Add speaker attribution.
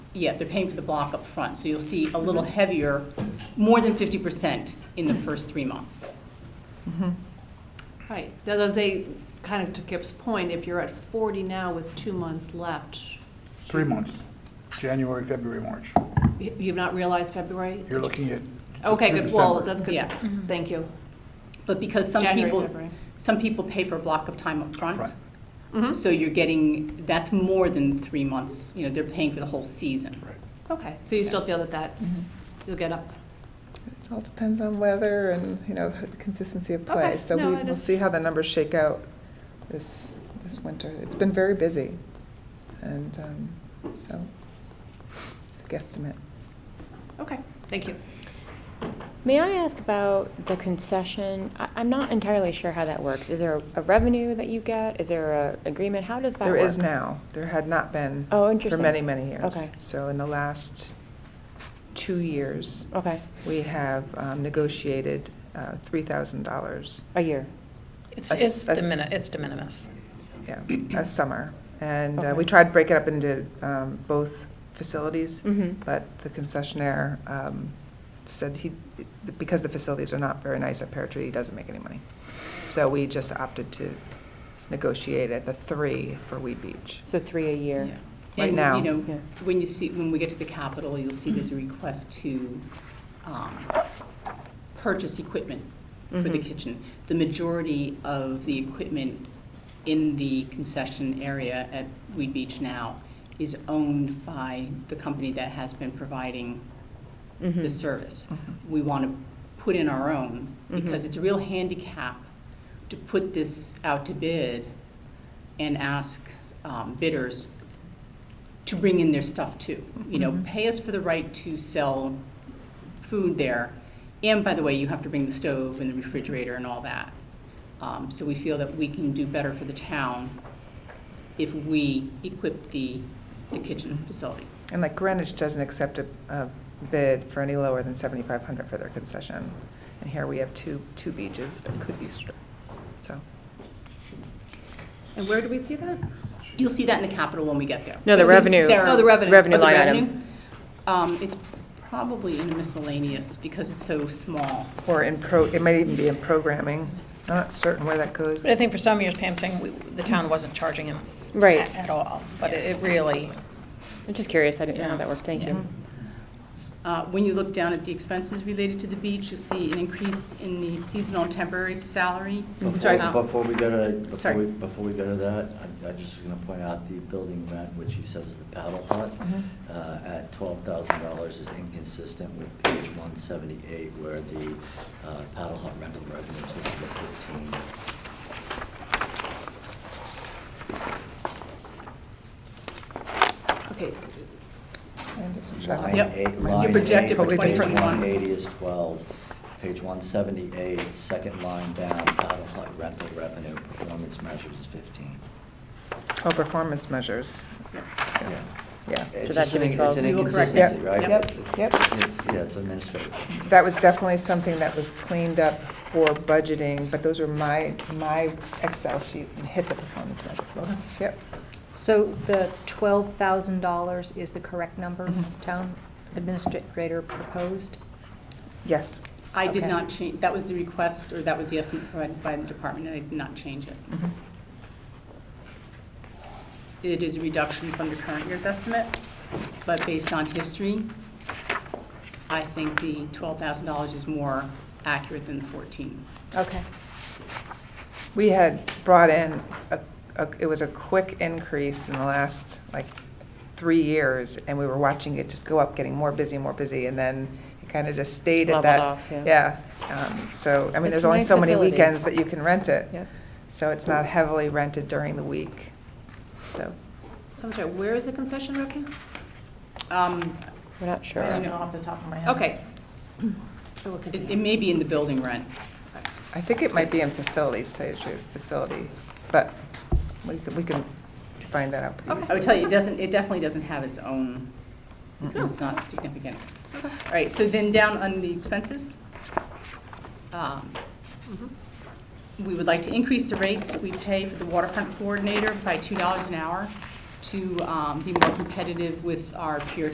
Speaker 1: yeah, they're paying for the block up front, so you'll see a little heavier, more than fifty percent in the first three months.
Speaker 2: Right, that was a, kind of to Kip's point, if you're at forty now with two months left,
Speaker 3: Three months, January, February, March.
Speaker 2: you- you've not realized February?
Speaker 3: You're looking at.
Speaker 2: Okay,
Speaker 3: through
Speaker 2: good, well,
Speaker 3: December.
Speaker 2: that's good, Mm-hmm.
Speaker 1: Yeah.
Speaker 2: thank you.
Speaker 1: But because some
Speaker 2: January,
Speaker 1: people,
Speaker 2: February.
Speaker 1: some people pay for a block of time up front,
Speaker 3: Front.
Speaker 2: Mhm.
Speaker 4: Mm-hmm.
Speaker 1: so you're getting, that's more than three months, you know, they're paying for the whole season.
Speaker 3: Right.
Speaker 2: Mm-hmm. Okay, so you still feel that that's,
Speaker 4: Mm-hmm.
Speaker 2: you'll get up?
Speaker 5: It all depends on weather and, you know, the consistency of play.
Speaker 2: Okay,
Speaker 5: So
Speaker 2: no,
Speaker 5: we
Speaker 2: I
Speaker 5: will
Speaker 2: just-
Speaker 5: see how the numbers shake out this, this winter. It's been very busy. And um, so it's a guesstimate.
Speaker 2: Okay, thank you.
Speaker 6: May I ask about the concession? I, I'm not entirely sure how that works. Is there a, revenue that you get? Is there a agreement? How does that
Speaker 5: There
Speaker 6: work?
Speaker 5: is now. There had not been
Speaker 6: Oh,
Speaker 5: for
Speaker 6: interesting.
Speaker 5: many, many years.
Speaker 6: Okay.
Speaker 5: So in the last two years,
Speaker 2: Oh.
Speaker 6: Okay,
Speaker 5: we have um, negotiated uh, $3,000,
Speaker 6: a year.
Speaker 4: It's,
Speaker 5: A s-
Speaker 4: it's
Speaker 5: a
Speaker 4: de minimis,
Speaker 5: s-
Speaker 4: it's de minimis.
Speaker 5: yeah, a summer. And uh, we
Speaker 6: Okay.
Speaker 5: tried to break it up into um, both facilities.
Speaker 6: Mm-hmm.
Speaker 5: But the concessionaire um, said he, because the facilities are not very nice at Pear Tree, he doesn't make any money. So we just opted to negotiate at the three for Weed Beach.
Speaker 6: So three a year.
Speaker 1: Yeah.
Speaker 5: Right now.
Speaker 1: And, you know,
Speaker 6: Yeah.
Speaker 1: when you see, when we get to the Capitol, you'll see there's a request to um, purchase equipment for the
Speaker 5: Mm-hmm.
Speaker 6: Mhm.
Speaker 1: kitchen. The majority of the equipment in the concession area at Weed Beach now is owned by the company that has been providing the
Speaker 6: Mhm.
Speaker 1: service.
Speaker 5: Mhm.
Speaker 1: We want to put in our own, because
Speaker 6: Mhm.
Speaker 1: it's a real handicap to put this out to bid and ask um, bidders to bring in their stuff too. You know,
Speaker 5: Mhm.
Speaker 1: pay us for the right to sell food there, and by the way, you have to bring the stove and the refrigerator and all that. Um, So we feel that we can do better for the town if we equip the, the kitchen facility.
Speaker 5: And like Greenwich doesn't accept a- a bid for any lower than 7,500 for their concession. And here we have two, two beaches that could be stripped, so.
Speaker 2: And where do we see that?
Speaker 1: You'll see that in the capital when we get there.
Speaker 6: No, the
Speaker 1: It's- it's
Speaker 6: revenue-
Speaker 1: Sarah-
Speaker 2: Oh, the revenue.
Speaker 6: revenue
Speaker 1: Oh, the
Speaker 6: line item.
Speaker 1: revenue? Um, it's probably in miscellaneous because it's so small.
Speaker 5: Or in pro, it might even be in programming. I'm not certain where that goes.
Speaker 4: But I think for some years, Pam's saying, we- the town wasn't charging him.
Speaker 6: Right.
Speaker 4: a- At all, but it it really,
Speaker 6: I'm just curious. I didn't know how that worked. Thank
Speaker 4: Yeah.
Speaker 6: you.
Speaker 1: Uh, when you look down at the expenses related to the beach, you'll see an increase in the seasonal temporary salary.
Speaker 7: Before
Speaker 1: Sorry.
Speaker 7: before we go to, that- before
Speaker 1: Sorry.
Speaker 7: we, before we go to that, I- I just was gonna point out the building rent, which he says is the paddle hut, uh, at twelve thousand dollars is inconsistent with page one seventy-eight, where the uh, paddle hut rental revenue is listed at fifteen.
Speaker 2: Okay,
Speaker 5: I'm just
Speaker 7: Line
Speaker 5: checking.
Speaker 1: Yep.
Speaker 7: eight,
Speaker 5: You
Speaker 7: line
Speaker 1: projected
Speaker 7: eight,
Speaker 1: for
Speaker 7: page
Speaker 1: 2021.
Speaker 7: one eighty is twelve, page one seventy-eight, second line down, paddle hut rental revenue, performance measures is fifteen.
Speaker 5: Oh, performance measures,
Speaker 7: Yeah.
Speaker 5: yeah.
Speaker 7: It's
Speaker 6: So that
Speaker 7: just
Speaker 6: should be
Speaker 7: an-
Speaker 6: 12.
Speaker 7: It's an
Speaker 1: You will correct
Speaker 7: inconsistency,
Speaker 5: it.
Speaker 7: right?
Speaker 5: Yep, yep.
Speaker 7: It's, yeah, it's administrative.
Speaker 5: That was definitely something that was cleaned up for budgeting, but those were my, my Excel sheet and hit the performance measure. Yep,
Speaker 8: So the twelve thousand dollars is the correct number
Speaker 6: Mm-hmm.
Speaker 8: town administrator proposed?
Speaker 5: yes.
Speaker 1: I did
Speaker 8: Okay.
Speaker 1: not change, that was the request, or that was the estimate provided by the department, and I did not change it.
Speaker 5: Mm-hmm.
Speaker 1: It is a reduction from the current year's estimate, but based on history, I think the twelve thousand dollars is more accurate than the fourteen.
Speaker 8: Okay.
Speaker 5: We had brought in, a- a- it was a quick increase in the last, like, three years, and we were watching it just go up, getting more busy, more busy, and then it kind of just stayed at
Speaker 6: Leveled
Speaker 5: that.
Speaker 6: off, yeah.
Speaker 5: Yeah, um, so, I mean,
Speaker 6: It's
Speaker 5: there's
Speaker 6: a
Speaker 5: only
Speaker 6: nice
Speaker 5: so many
Speaker 6: facility.
Speaker 5: weekends that you can rent it.
Speaker 6: Yep.
Speaker 5: So it's not heavily rented during the week, so.
Speaker 2: so I'm sorry, where is the concession revenue?
Speaker 1: Um,
Speaker 6: We're not sure.
Speaker 1: off the top of my
Speaker 2: Okay. So we'll continue.
Speaker 1: It, it may be in the building rent.
Speaker 5: I think it might be in facilities, tell you the truth, facility, but we can, we can find that out. for you.
Speaker 2: Okay.
Speaker 1: I would tell you, it doesn't, it definitely doesn't have its own, it's not significant. All right, so then down on the expenses. um, We would like to increase the rates we pay for the waterfront coordinator by $2 an hour to um, be more competitive with our peer